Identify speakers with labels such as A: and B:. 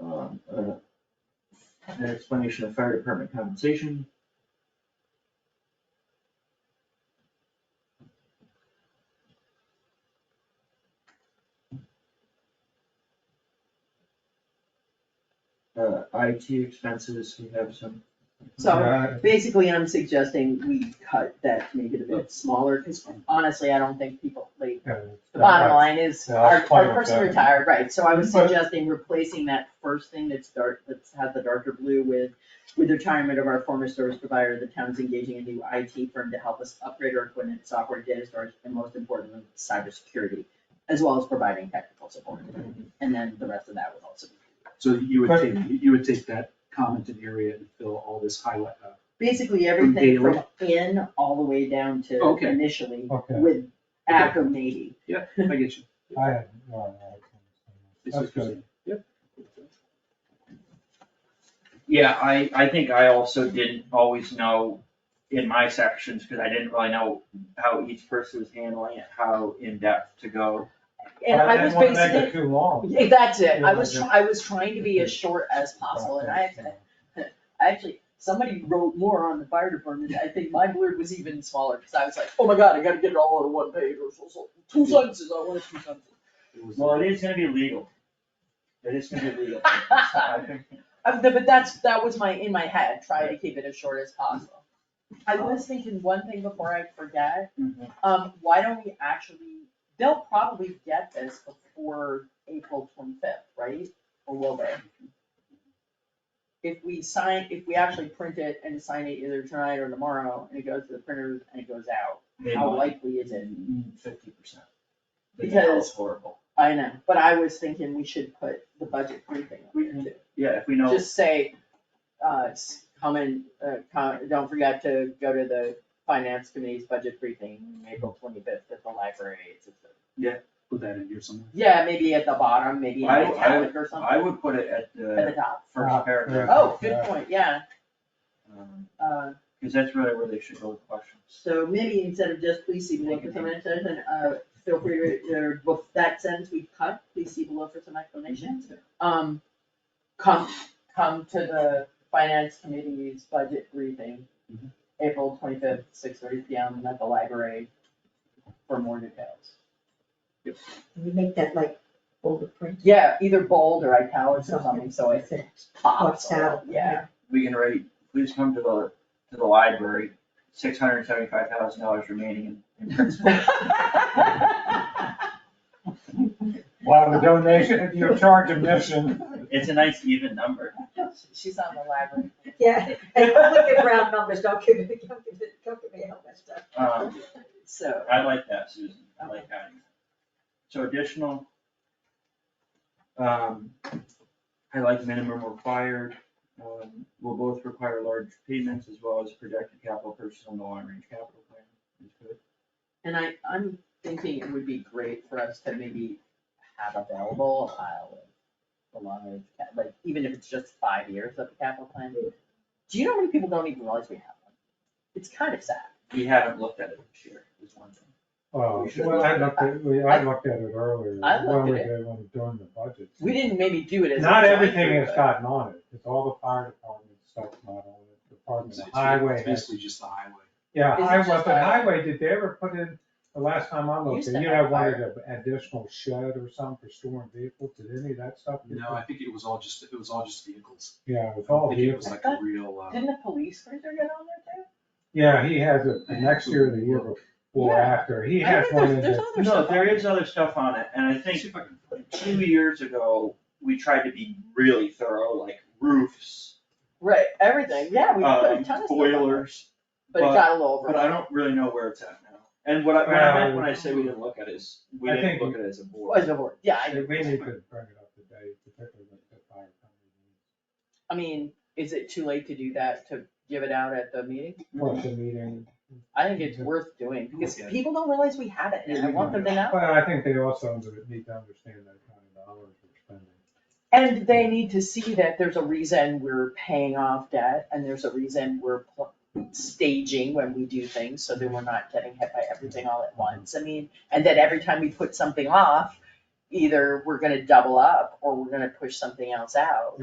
A: um, an explanation of fire department compensation. Uh, IT expenses, we have some,
B: So
C: Yeah,
B: basically, I'm suggesting we cut that, make it a bit smaller, because honestly, I don't think people, like,
C: yeah,
B: the bottom line is,
C: Yeah, I was
B: our,
C: fine
B: our
C: with
B: person
C: that.
B: retired, right, so I was
C: But-
B: suggesting replacing that first thing that's dark, that's has the darker blue with, with the retirement of our former service provider, the town's engaging a new IT firm to help us upgrade our equipment, software, data storage, and most importantly, cybersecurity, as well as providing technical support,
C: Mm-hmm.
B: and then the rest of that would also be.
D: So you would take, you would take that commented area and fill all this highlight, uh,
B: Basically, everything
D: daily?
B: from in all the way down to
D: Okay.
B: initially
C: Okay,
B: with after maybe.
D: yeah, I get you.
C: I had, no, no,
D: It's
C: that's
D: just-
C: good.
D: Yep.
E: Yeah, I, I think I also didn't always know in my sections, because I didn't really know how each person was handling it, how in-depth to go.
B: And I was
C: didn't wanna make
B: basically,
C: it Too long.
B: Yeah, that's it, I
C: Yeah,
B: was,
C: yeah.
B: try- I was trying to be as short as possible, and I, I actually, somebody wrote more on the fire department, I think my blurb was even smaller, because I was like, oh my god, I gotta get it all on one page, or so- so, two sentences, I want two sentences.
D: It was-
E: Well, it is gonna be legal. It is gonna be legal.
B: Uh, th- But that's, that was my, in my head, try to keep it as short as possible. I was thinking one thing before I forget,
E: Mhm.
B: um, why don't we actually, they'll probably get this before April twenty-fifth, right? Or will they? If we sign, if we actually print it and sign it either tonight or tomorrow, and it goes to the printers and it goes out, how likely is it?
E: Fifty percent.
B: Because-
E: horrible.
B: I know, but I was thinking we should put the budget briefing on
E: Mm-hmm.
B: there too.
E: Yeah, if we know,
B: just say, uh, s- come in, uh, come, don't forget to go to the finance committee's budget briefing, April twenty-fifth at the library. It's at the-
D: Put that in here somewhere.
B: Yeah, maybe at the bottom, maybe in
E: I- I-
B: italic or something,
E: I would put it at
B: at the
E: the
B: top.
C: Ah,
E: first paragraph,
A: Uh,
B: Oh, good
C: yeah.
B: point, yeah,
E: um,
B: uh,
E: cause that's really where they should go with questions.
B: so maybe instead of just please see below for some explanation, uh, feel free to, or bef- that sentence we cut, please see below for some explanation. Um, come, come to the finance committee's budget briefing,
D: Mhm.
B: April twenty-fifth, six thirty P M at the library for more details.
F: Can we make that like older print?
B: Yeah, either bold or italics or something, so it pops,
F: Pops out,
B: yeah.
E: we can rate, please come to the, to the library, six hundred and seventy-five thousand dollars remaining in, in principal.
C: Well, the donation, if you charge a mission,
E: It's a nice even number.
B: She's on the library.
F: Yeah, and don't give round numbers, don't give me, don't give me, don't give me all that stuff.
E: Um,
B: So,
E: I like that, Susan, I like that. So additional, um, I like minimum required, um, will both require large payments as well as projected capital purchase on the long-range capital plan. That's good.
B: and I, I'm thinking it would be great for us to maybe have available a pile of the long range, ca- like, even if it's just five years of the capital plan. Do you know how many people don't even realize we have one? It's kind of sad.
E: We haven't looked at it this year, is one thing.
C: oh,
E: We should
C: well, I looked at, we- I looked at it earlier.
B: I looked
C: when we
B: at
C: did- When we doing the budget.
B: We didn't maybe do it as. a
C: Not
B: joint
C: everything
B: group,
C: is
B: but-
C: gotten on it, it's all the fire department stuff, not all the department,
D: It's-
C: the
D: it's
C: highway. has-
D: Basically just the highway.
C: Yeah,
B: Is it
C: highway,
B: just
C: but
B: a-
C: highway, did they ever put in, the last time I looked,
B: Used
C: you
B: to
C: know,
B: have
C: wanted an additional shed or something for storing vehicles, did any of that stuff? get
D: No,
C: put-
D: I think it was all just, it was all just vehicles.
C: Yeah, with
D: I don't
C: all
D: think it was
C: vehicles,
D: like a real, uh,
B: Didn't the police cruiser get on there too?
C: yeah, he has it the next year, or the year before,
B: Yeah.
C: after, he
B: I
C: has
B: think
C: one in
B: there's- there's
C: the,
B: other
E: No,
B: stuff on
E: there is other stuff on it, and I think
D: see if I can find it.
E: two years ago, we tried to be really thorough, like roofs,
B: Right, everything, yeah, we put a
E: um,
B: ton of stuff on there,
E: boilers,
B: but it
E: but-
B: got a little
E: but I
B: overwhelming.
E: don't really know where it's at now. And what I, what I meant when I
C: Well-
E: say we didn't look at it is, we
C: I
E: didn't
C: think-
E: look at it as a
B: Was
E: board.
B: the board, yeah, I,
C: we need to bring it up today, particularly with the fire company.
B: I mean, is it too late to do that, to give it out at the meeting?
C: What's the meeting,
B: I think it's worth doing, because
D: Yeah.
B: people don't realize we have it, and I want them to know.
C: but I think they also need to understand that kind of dollars we're spending.
B: And they need to see that there's a reason we're paying off debt, and there's a reason we're pl- staging when we do things, so that we're not getting hit by everything all at once, I mean, and that every time we put something off, either we're gonna double up, or we're gonna push something else out.